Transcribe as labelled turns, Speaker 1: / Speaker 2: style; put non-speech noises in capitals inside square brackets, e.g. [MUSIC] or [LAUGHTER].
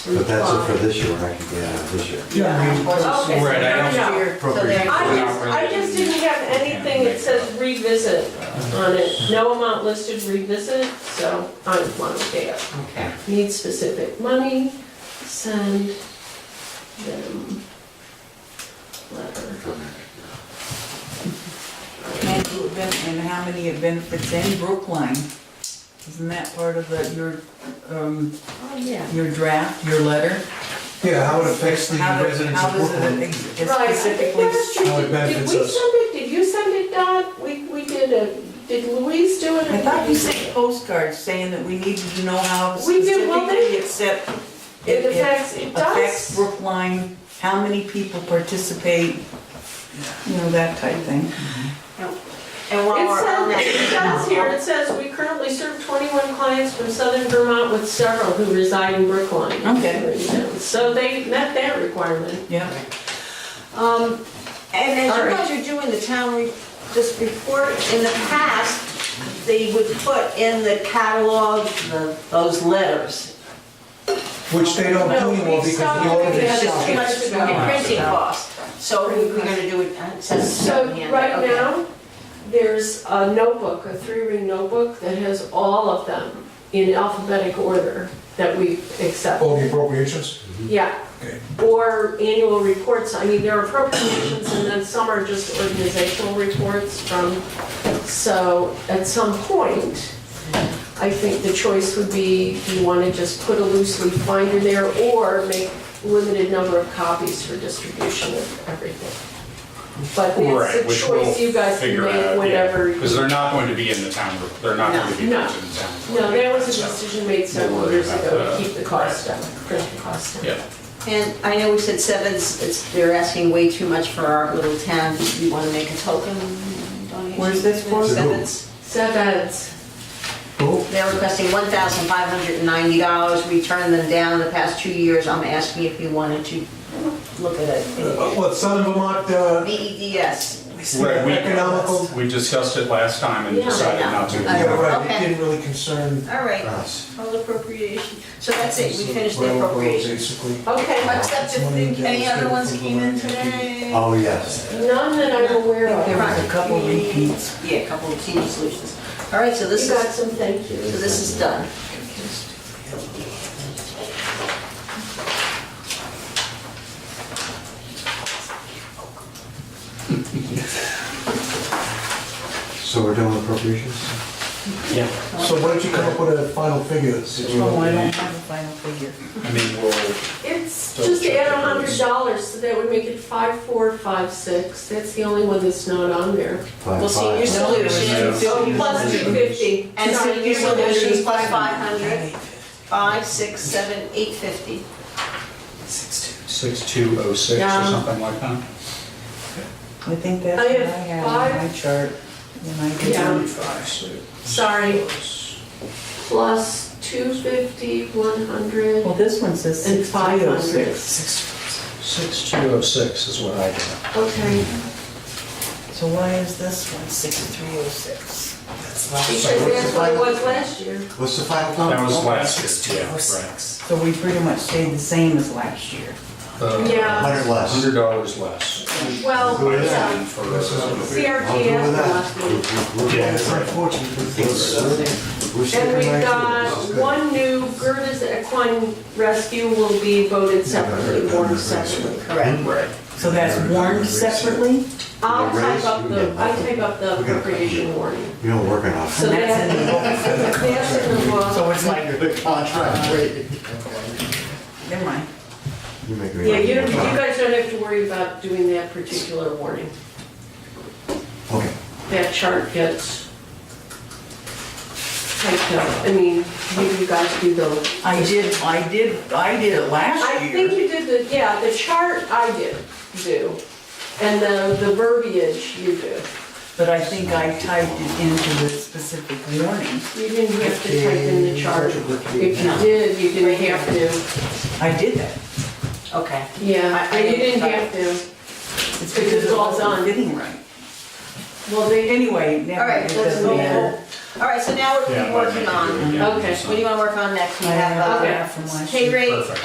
Speaker 1: But that's it for this year, I can get out of this year.
Speaker 2: Yeah, I mean,
Speaker 3: Okay, so
Speaker 4: Right, I
Speaker 3: fair
Speaker 4: don't-
Speaker 3: enough.
Speaker 4: Appropriate.
Speaker 3: I just, I just didn't have anything that says revisit on it, no amount listed revisit, so I want to pay up.
Speaker 4: Okay.
Speaker 3: Need specific money, send them letter.
Speaker 5: And who have been- and how many have been, it's in Brookline. Isn't that part of the, your, um,
Speaker 3: Oh, yeah.
Speaker 5: your draft, your letter?
Speaker 2: yeah, how it affects the
Speaker 5: How do-
Speaker 2: residents of
Speaker 5: How does it
Speaker 2: Brooklyn.
Speaker 5: ex-
Speaker 3: Right, I think
Speaker 5: specifically?
Speaker 3: that's true.
Speaker 1: Oh,
Speaker 2: how it
Speaker 3: Did- Did
Speaker 2: benefits
Speaker 3: we
Speaker 2: us.
Speaker 3: send it, did you send it, Dot? We, we did a, did Louise do it?
Speaker 5: I thought you sent postcards saying that we needed to know how
Speaker 3: We did, well,
Speaker 5: specifically it set-
Speaker 3: It
Speaker 5: it it
Speaker 3: affects, it
Speaker 5: affects
Speaker 3: does.
Speaker 5: Brookline, how many people participate, you know, that type thing.
Speaker 4: And while
Speaker 3: It
Speaker 4: we're on
Speaker 3: says,
Speaker 4: that,
Speaker 3: it does here, it says, "We currently serve 21 clients from southern Vermont with several who reside in Brookline."
Speaker 5: Okay.
Speaker 3: So they met that requirement.
Speaker 5: Yeah.
Speaker 4: um, and as
Speaker 3: All
Speaker 4: you
Speaker 3: right.
Speaker 4: guys are doing the town, re- this report, in the past, they would put in the catalog, the- those letters.
Speaker 2: Which they don't
Speaker 3: No,
Speaker 2: do
Speaker 3: we
Speaker 2: anymore because
Speaker 3: stopped
Speaker 2: the
Speaker 3: doing that.
Speaker 2: auditors.
Speaker 4: Because it's
Speaker 2: stopped
Speaker 4: too
Speaker 2: it.
Speaker 4: much for the printing costs. So we're gonna do it, Uh, it says.
Speaker 3: So
Speaker 4: hand,
Speaker 3: right
Speaker 4: okay.
Speaker 3: now, there's a notebook, a three-ring notebook that has all of them in alphabetic order that we accept.
Speaker 2: All the appropriations?
Speaker 3: Yeah.
Speaker 2: Okay.
Speaker 3: Or annual reports, I mean, there are appropriations and then some are just organizational reports from, so at some point, I think the choice would be, do you want to just put a loose leaf binder there or make limited number of copies for distribution of everything? But
Speaker 6: Right,
Speaker 3: it's
Speaker 6: which
Speaker 3: a
Speaker 6: we'll
Speaker 3: choice you guys can
Speaker 6: figure
Speaker 3: make
Speaker 6: out,
Speaker 3: whenever. you-
Speaker 6: Because they're not going to be in the town, re- they're not going to be
Speaker 3: No.
Speaker 6: printed in the
Speaker 3: No,
Speaker 6: town.
Speaker 3: that was a
Speaker 6: So,
Speaker 3: decision made several years ago to keep the cost down, print the cost down.
Speaker 6: Yeah,
Speaker 4: And I know we said seven, it's, it's- they're asking way too much for our little town. You want to make a token donation?
Speaker 5: Where's this for?
Speaker 4: Sevens.
Speaker 3: Sevens.
Speaker 2: Oh,
Speaker 4: They're requesting $1,590. We turned them down the past two years. I'm asking if you wanted to look at it. E
Speaker 2: uh, What, Southern Vermont, uh,
Speaker 4: BEDS.
Speaker 6: Right, we-
Speaker 2: economical?
Speaker 6: we discussed it last time and
Speaker 3: Yeah.
Speaker 6: decided not to.
Speaker 2: Yeah, right, it
Speaker 4: Okay.
Speaker 2: didn't really concern
Speaker 4: All right,
Speaker 1: Us.
Speaker 4: all appropriation. So that's it, we finished the
Speaker 2: railroad,
Speaker 4: appropriation.
Speaker 2: basically.
Speaker 3: Okay.
Speaker 4: Except if the- any other ones came in today?
Speaker 1: Oh, yes.
Speaker 3: None that I'm aware
Speaker 5: There
Speaker 3: of.
Speaker 5: was a couple repeats.
Speaker 4: Yeah, a couple of senior solutions. All right, so this
Speaker 3: You got
Speaker 4: is,
Speaker 3: some thank
Speaker 4: so
Speaker 3: yous.
Speaker 4: this is done.
Speaker 1: So we're done with appropriations?
Speaker 6: Yeah.
Speaker 2: So why don't you come up with a final figure? that you-
Speaker 5: Oh, I don't have a final figure.
Speaker 6: I mean, we'll,
Speaker 3: It's
Speaker 6: Double
Speaker 3: just
Speaker 6: check
Speaker 3: add
Speaker 6: the
Speaker 3: a hundred
Speaker 6: words.
Speaker 3: dollars, so that would make it five, four, five, six. That's the only one that's not on there.
Speaker 1: Five,
Speaker 4: Well, senior
Speaker 1: five.
Speaker 4: solutions.
Speaker 3: So Oh, plus two fifty.
Speaker 4: And senior solutions plus 500, 5, 6, 7, 850.
Speaker 6: 6206 or
Speaker 3: Yeah.
Speaker 6: something like that.
Speaker 5: I think that's
Speaker 3: I
Speaker 5: what I
Speaker 3: have
Speaker 5: have on my chart. And I
Speaker 3: Yeah.
Speaker 5: can
Speaker 3: Sorry, plus two fifty, one hundred.
Speaker 5: Well, this one says
Speaker 3: And
Speaker 5: 6306.
Speaker 6: 6206 is what I got.
Speaker 3: Okay,
Speaker 5: So why is this one 6306?
Speaker 3: because that's what it was last year.
Speaker 1: What's the final number?
Speaker 6: That was last year, yeah, right.
Speaker 5: So we pretty much stayed the same as last year.
Speaker 6: Uh,
Speaker 3: Yeah,
Speaker 1: Hundred less.
Speaker 6: $100 less.
Speaker 3: well, yeah.
Speaker 6: For-
Speaker 1: I'll do
Speaker 3: CRTS
Speaker 1: with
Speaker 3: the
Speaker 1: that.
Speaker 3: last one.
Speaker 1: We're- we're-
Speaker 6: Yeah,
Speaker 1: It's
Speaker 6: right.
Speaker 1: unfortunate. We're- we're
Speaker 3: And
Speaker 1: saving
Speaker 3: we've
Speaker 1: lives.
Speaker 3: got
Speaker 1: This is good.
Speaker 3: one new, Gerda's Equine Rescue will be voted separately, warned separately.
Speaker 4: Correct.
Speaker 5: So that's warned separately?
Speaker 3: I'll
Speaker 1: The
Speaker 3: type
Speaker 1: raise,
Speaker 3: up
Speaker 1: you
Speaker 3: the,
Speaker 1: get
Speaker 3: I
Speaker 1: that.
Speaker 3: type up the
Speaker 1: We gotta-
Speaker 3: appropriation warning.
Speaker 1: You don't work enough.
Speaker 3: So
Speaker 5: And that's in
Speaker 3: that,
Speaker 5: the old-
Speaker 3: that's in the law.
Speaker 5: So it's
Speaker 1: [LAUGHS]
Speaker 5: like,
Speaker 1: The contract, wait.
Speaker 5: never mind.
Speaker 1: You make me.
Speaker 3: Yeah, you don't, you guys don't have to worry about doing that particular warning.
Speaker 1: Okay.
Speaker 3: That chart gets typed up, I mean, you you guys do the.
Speaker 5: I did, I did, I did it
Speaker 3: I
Speaker 5: last
Speaker 3: think
Speaker 5: year.
Speaker 3: you did the, yeah, the chart I did, do, and the, the verbiage you do.
Speaker 5: But I think I typed it into the specific warning.
Speaker 3: You didn't have to type in the chart. If you did, you didn't have to.
Speaker 5: I did that.
Speaker 4: Okay.
Speaker 3: Yeah, and you didn't have to.
Speaker 5: It's
Speaker 3: Because it's
Speaker 5: because it
Speaker 3: all
Speaker 5: wasn't
Speaker 3: done.
Speaker 5: fitting right.
Speaker 3: Well, they,
Speaker 5: Anyway,
Speaker 4: All
Speaker 5: never
Speaker 4: right,
Speaker 5: mind. It
Speaker 4: let's
Speaker 5: doesn't
Speaker 4: move
Speaker 5: matter.
Speaker 4: on. All right, so now we're
Speaker 6: Yeah,
Speaker 4: working on,
Speaker 6: yeah.
Speaker 3: Okay.
Speaker 4: what do you want to work on next? We
Speaker 5: I
Speaker 4: have
Speaker 5: have
Speaker 4: uh,
Speaker 5: that from last year.
Speaker 4: pay rate
Speaker 6: Perfect.